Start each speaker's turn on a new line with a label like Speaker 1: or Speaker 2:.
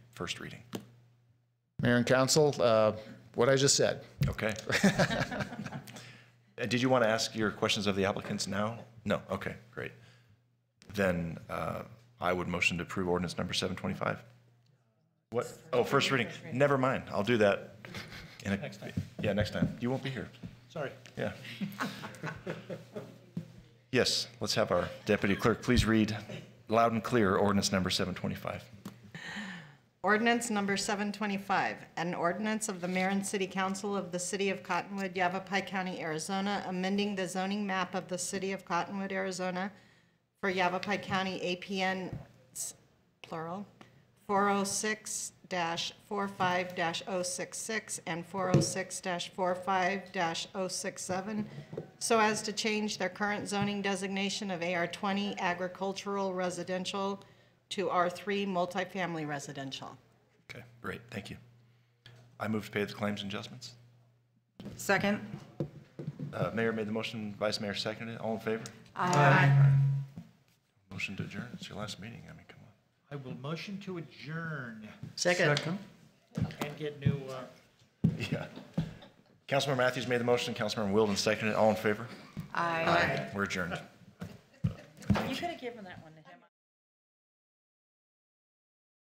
Speaker 1: first reading.
Speaker 2: Mayor and council, uh, what I just said.
Speaker 1: Okay. Uh, Did you want to ask your questions of the applicants now? No, okay, great. Then uh, I would motion to approve ordinance number 725. What, oh, first reading, never mind, I'll do that. Next time. Yeah, next time, you won't be here.
Speaker 3: Sorry.
Speaker 1: Yeah. Yes, let's have our deputy clerk please read loud and clear ordinance number 725.
Speaker 4: Ordinance number 725, an ordinance of the mayor and city council of the city of Cottonwood, Yavapai County, Arizona, amending the zoning map of the city of Cottonwood, Arizona for Yavapai County APN, s- plural, 406-45-066 and 406-45-067, so as to change their current zoning designation of AR20 agricultural residential to R3 multifamily residential.
Speaker 1: Okay, great, thank you. I move to pay the claims and adjustments.
Speaker 5: Second?
Speaker 1: Uh, Mayor made the motion, Vice Mayor seconded it. All in favor?
Speaker 5: Aye.
Speaker 1: Motion to adjourn. It's your last meeting. I mean, come on.
Speaker 3: I will motion to adjourn
Speaker 5: Second.
Speaker 3: and get new, uh,
Speaker 1: Yeah. Councilmember Matthews made the motion. Councilmember Wilden seconded it. All in favor?
Speaker 5: Aye.
Speaker 1: We're adjourned.
Speaker 6: You could have given that one to